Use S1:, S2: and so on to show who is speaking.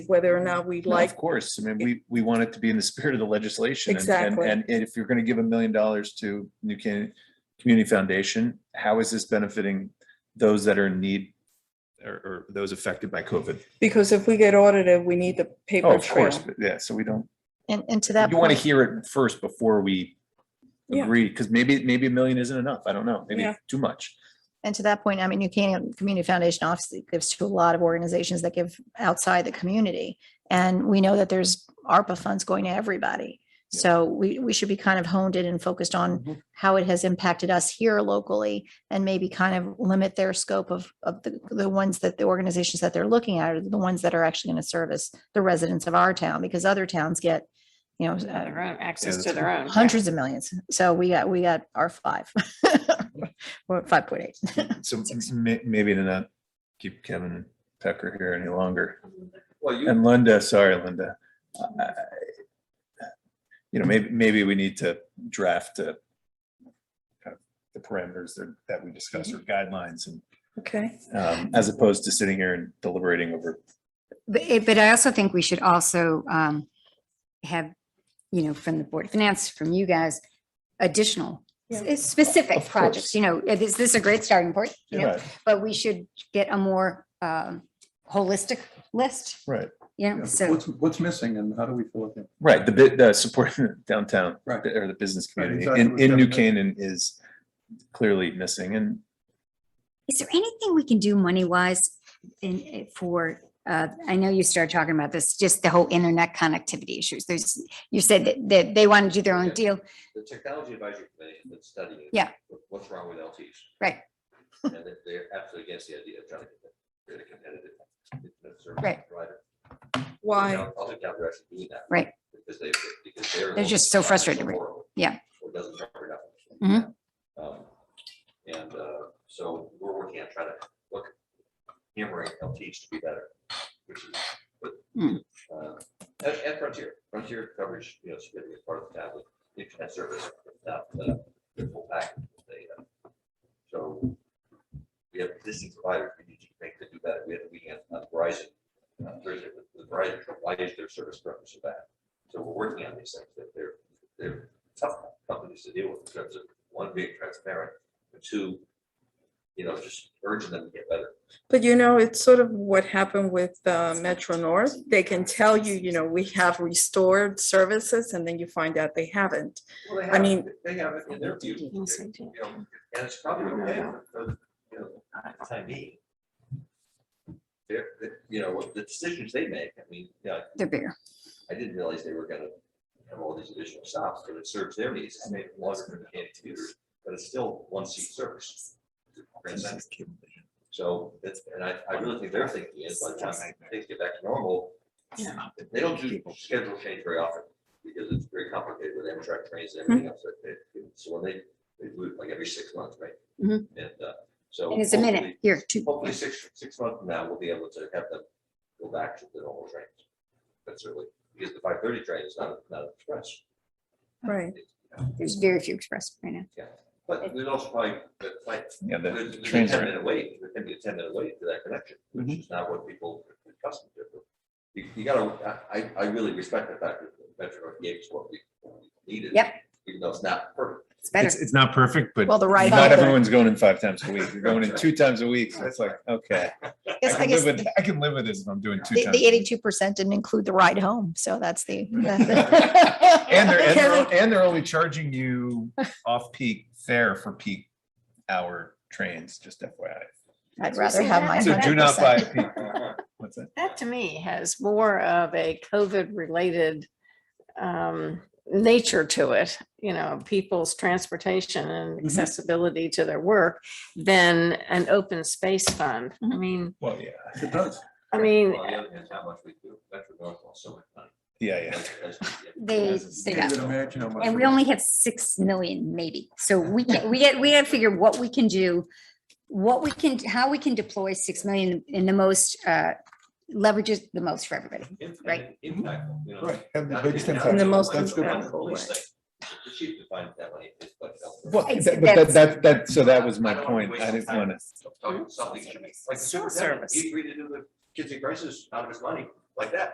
S1: whether or not we
S2: No,
S1: like,
S2: Of course, I mean, we, we want it to be in the spirit of the legislation. and- and-
S1: Exactly.
S2: And if you're gonna give a million dollars to New Canaan Community Foundation, how is this benefiting those that are in need? Or, or those affected by COVID?
S1: because if we get audited, we need the
S2: Oh,
S1: paper
S2: of course,
S1: trail.
S2: but yeah, so we don't,
S3: And, and to that
S2: you wanna
S3: point,
S2: hear it first before we
S1: Yeah.
S2: agree, because maybe, maybe a million isn't enough, I don't know, maybe
S1: Yeah.
S2: too much.
S3: and to that point, I mean, New Canaan Community Foundation obviously gives to a lot of organizations that give outside the community. And we know that there's ARPA funds going to everybody.
S2: Yeah.
S3: So we, we should be kind of honed in and focused
S2: Mhm.
S3: on how it has impacted us here locally and maybe kind of limit their scope of, of the, the ones that the organizations that they're looking at are the ones that are actually going to service the residents of our town because other towns get, you know,
S4: Yeah,
S3: uh,
S4: Their own, access
S2: that's
S4: to their own. yeah.
S3: hundreds of millions. So we got, we got our five. Or five point eight.
S2: So may, maybe to not keep Kevin and Tucker here any longer.
S5: Well, you,
S2: And Linda, sorry, Linda. I- You know, maybe, maybe we need to draft uh, kind of the parameters that, that we discussed or guidelines and
S1: Okay,
S2: um, as opposed to sitting here and deliberating over.
S6: But, it- but I also think we should also um, have, you know, from the Board of Finance, from you guys, additional s-
S1: Yeah.
S6: specific
S2: Of course.
S6: projects, you know, is this is a great starting point? You know,
S2: Right,
S6: but we should get a more um, holistic list,
S2: right.
S6: you know,
S5: yeah,
S6: so,
S5: what's, what's missing and how do we fill it in?
S2: Right, the bit, the support downtown
S5: Right.
S2: or the business
S5: Right,
S2: community
S5: exactly
S2: in,
S5: what
S2: in New
S5: Kevin
S2: Canaan
S5: said.
S2: is clearly missing and
S6: is there anything we can do money-wise in, eh, for, uh, I know you started talking about this, just the whole internet connectivity issues. There's, you said that, that they want to do their own
S7: Yeah.
S6: deal.
S7: the technology advisory committee has been studying.
S6: Yeah.
S7: what- What's wrong with LTs?
S6: Right.
S7: And that they're absolutely against the idea of trying to get rid of competitive. internet service
S6: Right.
S7: provider.
S1: why?
S7: E Now, Other towns are actually doing that.
S6: Right.
S7: Because they, because they're.
S6: They're just so frustrated, right?
S7: Or
S6: Yeah.
S7: doesn't cover it up.
S6: Mhm.
S7: Um, And uh, so we're working on trying to look, hammering LTs to be better. which is good.
S6: Hmm.
S7: Uh, And, and Frontier, Frontier coverage, you know, is going to be part of the tablet internet service, if not uh, the full package of data. So we have existing providers, we need to make them do better. We had a weekend on Verizon, uh, Thursday with- with Verizon, why is their service revenue so bad? So we're working on these things, that they're, they're tough companies to deal with in terms of, one, being transparent, and two, you know, just urging them to get better.
S1: But you know, it's sort of what happened with uh, Metro North. They can tell you, you know, we have restored services and then you find out they haven't.
S7: Well, they
S1: I
S7: have it.
S1: mean-
S7: They have it in their view, you know, and it's probably okay for, for, you know, the time being. They're, they- you know, what the decisions they make, I mean, yeah,
S6: They're bigger.
S7: I didn't realize they were gonna have all these additional stops, but it serves their needs, it's made longer than the computers, but it's still one seat service. Grand Central. So, it's, and I, I really think their thinking is by the time things get back to normal, they don't do schedule change very often because it's very complicated with Amtrak trains and everything else. that they do. So when they, they do it like every six months, right?
S6: Mhm.
S7: And, uh, so.
S6: And it's a minute,
S7: hopefully-
S6: here, two.
S7: Hopefully, six, six months from now, we'll be able to have them go back to the normal trains. That's really, because the five thirty train is not, not express.
S1: Right.
S6: There's very few express right now.
S7: But there's also probably, but like,
S2: yeah, the
S7: there's there's a ten
S2: trains are, Mm-hmm.
S7: minute wait, there can be a ten minute wait to that connection, which is not what people are accustomed to. You, you gotta, I, I- I really respect the fact that Metro North gave us what we what we needed.
S6: Yep.
S7: Even though it's not perfect.
S6: It's
S2: it's,
S6: better.
S2: it's not perfect, but
S3: Well, the right.
S2: not
S3: hand.
S2: everyone's going in five times a week, you're going in two times a week, so it's like, okay.
S3: I
S2: I
S3: guess, I
S2: can
S3: guess
S2: live
S3: the
S2: with, I can live with this if I'm doing two times.
S3: the eighty-two percent didn't include the ride home. So that's the.
S2: And they're, and
S3: Kevin,
S2: they're, and they're only charging you off-peak fare for peak hour trains, just FYI.
S3: I'd rather have my
S2: So do not buy
S3: 100%.
S2: peak. What's that?
S4: That to me has more of a COVID-related um, nature to it, you know, people's transportation and accessibility to their work than an open space fund. I
S3: Mhm.
S4: mean,
S2: Well, yeah,
S5: It does.
S4: I mean,
S7: On the other hand, how much we do, Metro North lost so much money.
S2: yeah, yeah.
S7: That's- that's- yeah.
S6: They, they
S5: Can't
S6: got,
S5: even imagine how much.
S6: and we only have six million maybe. So we can, we get, we gotta figure what we can do, what we can, how we can deploy six million in the most, uh, leverages the most for everybody.
S7: Im-
S6: Right.
S7: Impactful, you know.
S5: Right, have the
S7: Not-
S5: biggest
S7: not-
S5: impact.
S1: In the most
S7: That's good.
S1: impactful
S7: Only
S1: way.
S7: six. The chief defined that money, it's like- uh,
S2: Well,
S6: Ex-
S2: that- but that,
S6: that's-
S2: that, that, so that was
S7: I
S2: my
S7: don't wanna
S2: point.
S7: waste
S2: I didn't
S7: time.
S2: want to,
S7: Talking about Something should be, like the
S4: Cell
S7: superintendent,
S4: service.
S7: he agreed to do the kids in crisis out of his money, like that.